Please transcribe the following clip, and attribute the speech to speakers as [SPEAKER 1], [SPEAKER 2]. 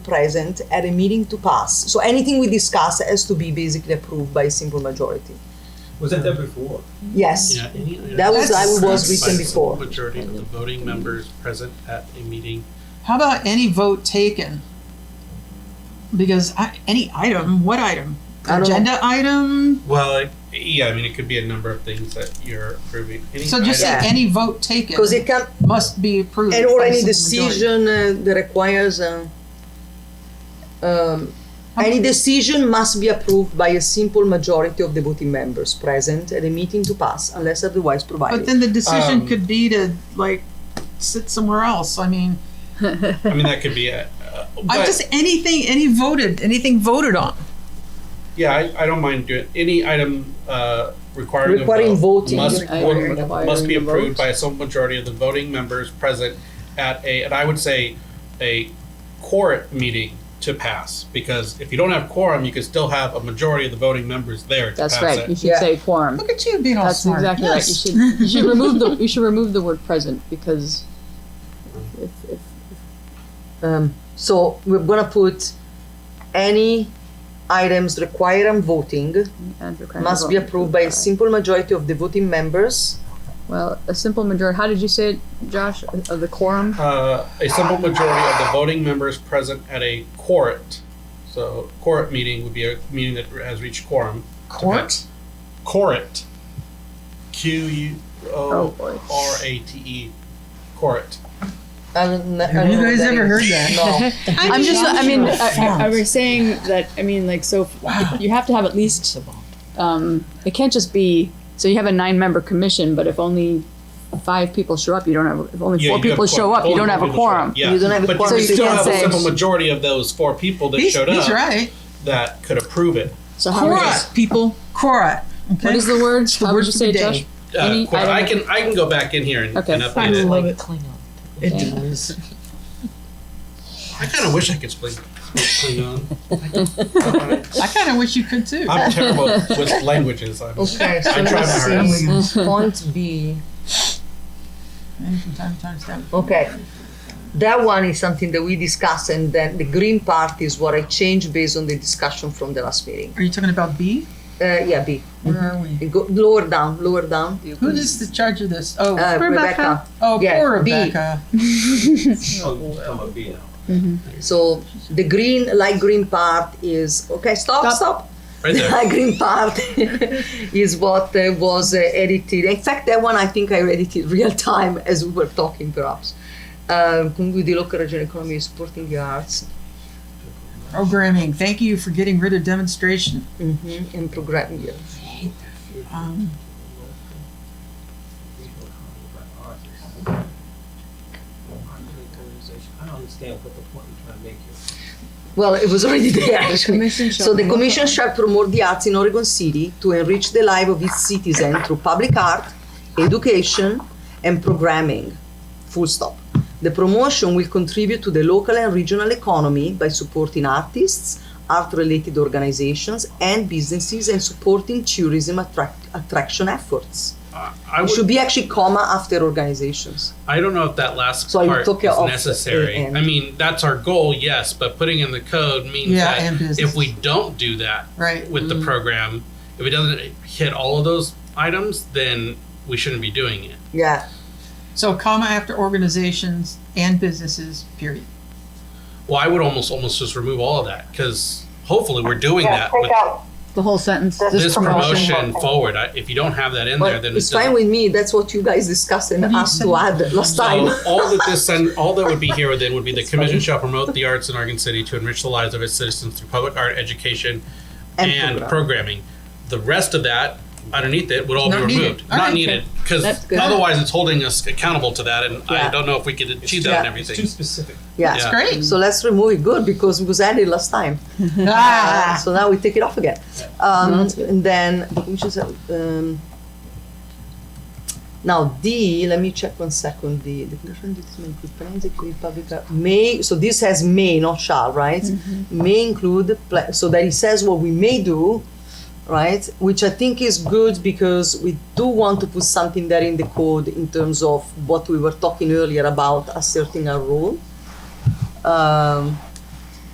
[SPEAKER 1] present at a meeting to pass. So anything we discuss has to be basically approved by a simple majority.
[SPEAKER 2] Was that there before?
[SPEAKER 1] Yes.
[SPEAKER 3] Yeah, any other-
[SPEAKER 1] That was- I was
[SPEAKER 3] That's-
[SPEAKER 1] written
[SPEAKER 3] by
[SPEAKER 1] before.
[SPEAKER 3] Majority of the voting members present at a meeting.
[SPEAKER 4] How about any vote taken? Because I, any item, what item?
[SPEAKER 1] I don't know.
[SPEAKER 4] Agenda item?
[SPEAKER 3] Well, it- yeah, I mean, it could be a number of things that you're approving. Any
[SPEAKER 4] So just say
[SPEAKER 3] item-
[SPEAKER 1] Yeah.
[SPEAKER 4] any vote taken
[SPEAKER 1] Because it can,
[SPEAKER 4] must be approved.
[SPEAKER 1] and or
[SPEAKER 4] by
[SPEAKER 1] any
[SPEAKER 4] simple majority.
[SPEAKER 1] decision uh, that requires, uh, um, any decision must be approved by a simple majority of the voting members present at a meeting to pass unless otherwise
[SPEAKER 4] But
[SPEAKER 1] provided.
[SPEAKER 4] then the decision
[SPEAKER 3] Um,
[SPEAKER 4] could be to like sit somewhere else. I mean,
[SPEAKER 3] I mean, that could be a. Uh,
[SPEAKER 4] I'm
[SPEAKER 3] but-
[SPEAKER 4] just anything, any voted, anything voted on.
[SPEAKER 3] Yeah, I, I don't mind doing any item uh, requiring a
[SPEAKER 1] Requiring
[SPEAKER 3] vote
[SPEAKER 1] voting.
[SPEAKER 3] must
[SPEAKER 5] Requiring
[SPEAKER 3] must
[SPEAKER 5] requiring
[SPEAKER 3] be
[SPEAKER 5] a vote.
[SPEAKER 3] approved by a simple majority of the voting members present at a and I would say a quorum meeting to pass because if you don't have quorum, you can still have a majority of the voting members there. To
[SPEAKER 5] That's
[SPEAKER 3] pass
[SPEAKER 5] right. You
[SPEAKER 3] It.
[SPEAKER 5] should
[SPEAKER 1] Yeah.
[SPEAKER 5] say quorum.
[SPEAKER 4] Look at you being all
[SPEAKER 5] That's
[SPEAKER 4] smart.
[SPEAKER 5] exactly right. You
[SPEAKER 4] Yes.
[SPEAKER 5] should you should remove the you should remove the word present because if, if
[SPEAKER 1] Um, so we're gonna put any items requiring voting
[SPEAKER 5] and requiring
[SPEAKER 1] must be
[SPEAKER 5] vote.
[SPEAKER 1] approved by a simple majority of the voting members.
[SPEAKER 5] uh, Well, a simple majority. How did you say it, Josh? Of the quorum.
[SPEAKER 3] Uh, a simple majority of the voting members present at a quorate. So quorate meeting would be a meeting that has reached quorum.
[SPEAKER 4] Court?
[SPEAKER 3] Quorate. Q U
[SPEAKER 5] Oh
[SPEAKER 3] O
[SPEAKER 5] boy.
[SPEAKER 3] R A T E. Quorate.
[SPEAKER 1] I don't kn- I
[SPEAKER 4] Have
[SPEAKER 1] don't
[SPEAKER 4] you
[SPEAKER 1] know what
[SPEAKER 4] guys
[SPEAKER 1] that
[SPEAKER 4] ever
[SPEAKER 1] is.
[SPEAKER 4] heard that?
[SPEAKER 1] No.
[SPEAKER 5] I'm just. I mean,
[SPEAKER 4] Josh,
[SPEAKER 5] I,
[SPEAKER 4] you're
[SPEAKER 5] I, I
[SPEAKER 4] a
[SPEAKER 5] was saying that. I mean, like, so if- you have to have at least. Um, it can't just be. So you have a nine-member commission, but if only five people show up, you don't have. If only
[SPEAKER 3] Yeah,
[SPEAKER 5] four
[SPEAKER 3] you do have
[SPEAKER 5] people show
[SPEAKER 3] quorum.
[SPEAKER 5] up, you
[SPEAKER 3] Only
[SPEAKER 5] don't
[SPEAKER 3] four
[SPEAKER 5] have a
[SPEAKER 3] people show up.
[SPEAKER 5] quorum.
[SPEAKER 3] Yeah.
[SPEAKER 1] You don't have a
[SPEAKER 3] but
[SPEAKER 1] quorum,
[SPEAKER 3] you
[SPEAKER 1] so you
[SPEAKER 3] still
[SPEAKER 5] can't
[SPEAKER 3] have a
[SPEAKER 5] say-
[SPEAKER 3] simple majority of those four people that
[SPEAKER 4] He's,
[SPEAKER 3] showed
[SPEAKER 4] he's
[SPEAKER 3] up
[SPEAKER 4] right.
[SPEAKER 3] that could approve it.
[SPEAKER 5] So how many?
[SPEAKER 4] Court, people. Court. Okay?
[SPEAKER 5] What is the word? How would
[SPEAKER 4] word
[SPEAKER 5] you
[SPEAKER 4] for
[SPEAKER 5] say,
[SPEAKER 4] the
[SPEAKER 5] it,
[SPEAKER 4] day.
[SPEAKER 5] Josh?
[SPEAKER 3] Uh,
[SPEAKER 5] Any
[SPEAKER 3] quorum. I
[SPEAKER 5] item-
[SPEAKER 3] can I can go back in here and,
[SPEAKER 5] Okay,
[SPEAKER 3] and
[SPEAKER 5] fine.
[SPEAKER 3] update it.
[SPEAKER 4] love it. It
[SPEAKER 5] Yeah.
[SPEAKER 4] does.
[SPEAKER 3] I kind of wish I could speak speak Klingon.
[SPEAKER 4] I kind of wish you could too.
[SPEAKER 3] I'm terrible with languages. I'm,
[SPEAKER 1] Okay,
[SPEAKER 3] I
[SPEAKER 1] so
[SPEAKER 3] try my
[SPEAKER 1] let's
[SPEAKER 3] hardest.
[SPEAKER 1] see. Point B. Okay. That one is something that we discussed, and then the green part is what I changed based on the discussion from the last meeting.
[SPEAKER 4] Are you talking about B?
[SPEAKER 1] Uh, yeah, B.
[SPEAKER 4] Where are we?
[SPEAKER 1] You Go lower down, lower down.
[SPEAKER 4] Who is the charge of this? Oh,
[SPEAKER 1] Uh,
[SPEAKER 4] Rebecca.
[SPEAKER 1] Rebecca.
[SPEAKER 4] Oh,
[SPEAKER 1] Yeah,
[SPEAKER 4] poor
[SPEAKER 1] B.
[SPEAKER 4] Rebecca.
[SPEAKER 2] Oh, I'm a B now.
[SPEAKER 1] So the green, light green part is okay. Stop,
[SPEAKER 5] Stop.
[SPEAKER 1] stop.
[SPEAKER 3] Right
[SPEAKER 1] The
[SPEAKER 3] there.
[SPEAKER 1] light green part is what uh, was uh, edited. In fact, that one I think I edited real time as we were talking, perhaps. Uh, comunque di local regional economy supporting the arts
[SPEAKER 4] Programming. Thank you for getting rid of demonstration.
[SPEAKER 1] mhm, and programming. Yeah.
[SPEAKER 4] Um,
[SPEAKER 2] I don't understand what the point you're trying to make here.
[SPEAKER 1] Well, it was already there. actually.
[SPEAKER 5] commission shall
[SPEAKER 1] so the
[SPEAKER 5] promote-
[SPEAKER 1] commission shall promote the arts in Oregon City to enrich the life of its citizens through public art, education, and programming. Full stop. The promotion will contribute to the local and regional economy by supporting artists, art-related organizations, and businesses, and supporting tourism attract- attraction efforts.
[SPEAKER 3] I, I
[SPEAKER 1] It
[SPEAKER 3] would
[SPEAKER 1] should be actually comma after organizations.
[SPEAKER 3] I don't know if that last
[SPEAKER 1] So I
[SPEAKER 3] part
[SPEAKER 1] took it
[SPEAKER 3] is
[SPEAKER 1] off the
[SPEAKER 3] necessary.
[SPEAKER 1] end.
[SPEAKER 3] I mean, that's our goal, yes, but putting in the code means
[SPEAKER 4] Yeah, and
[SPEAKER 3] that
[SPEAKER 4] business.
[SPEAKER 3] if we don't do that
[SPEAKER 4] right.
[SPEAKER 3] with
[SPEAKER 1] Mm.
[SPEAKER 3] the program, if it doesn't hit all of those items, then we shouldn't be doing it.
[SPEAKER 1] Yeah.
[SPEAKER 4] So, comma after organizations and businesses, period.
[SPEAKER 3] Well, I would almost almost just remove all of that because hopefully we're doing
[SPEAKER 6] Yeah,
[SPEAKER 3] that
[SPEAKER 6] take
[SPEAKER 3] with
[SPEAKER 6] out
[SPEAKER 5] The whole sentence.
[SPEAKER 3] this, promotion,
[SPEAKER 6] promotion.
[SPEAKER 3] forward. I, if you don't have that in
[SPEAKER 1] But
[SPEAKER 3] there, then
[SPEAKER 1] it's
[SPEAKER 3] it doesn't-
[SPEAKER 1] fine with me. That's what you guys discussed and
[SPEAKER 4] What do you
[SPEAKER 1] asked
[SPEAKER 4] say?
[SPEAKER 1] to add last
[SPEAKER 3] So
[SPEAKER 1] time.
[SPEAKER 3] all that this and all that would be here then would be the commission shall promote the arts in Oregon City to enrich the lives of its citizens through public art education
[SPEAKER 1] And
[SPEAKER 3] and,
[SPEAKER 1] program.
[SPEAKER 3] programming. The rest of that underneath it would all
[SPEAKER 4] Not
[SPEAKER 3] be
[SPEAKER 4] needed.
[SPEAKER 3] removed,
[SPEAKER 4] All
[SPEAKER 3] not
[SPEAKER 4] right.
[SPEAKER 3] needed, because
[SPEAKER 5] That's good.
[SPEAKER 3] otherwise it's holding us accountable to that, and
[SPEAKER 1] Yeah.
[SPEAKER 3] I don't know if we could achieve that
[SPEAKER 1] Yeah.
[SPEAKER 3] and
[SPEAKER 2] It's too
[SPEAKER 3] everything.
[SPEAKER 2] specific.
[SPEAKER 1] Yeah.
[SPEAKER 3] Yeah.
[SPEAKER 4] Great.
[SPEAKER 1] So let's remove it. Good because it was added last time. Uh,
[SPEAKER 4] ah,
[SPEAKER 1] so now we take it off again. Um, and then we just uh, um, now D. Let me check one second. D. The condition that is made with plans include public art- may. So this has may, not shall, right? May include pla- so that it says what we may do, right? Which I think is good because we do want to put something there in the code in terms of what we were talking earlier about asserting a role. Um,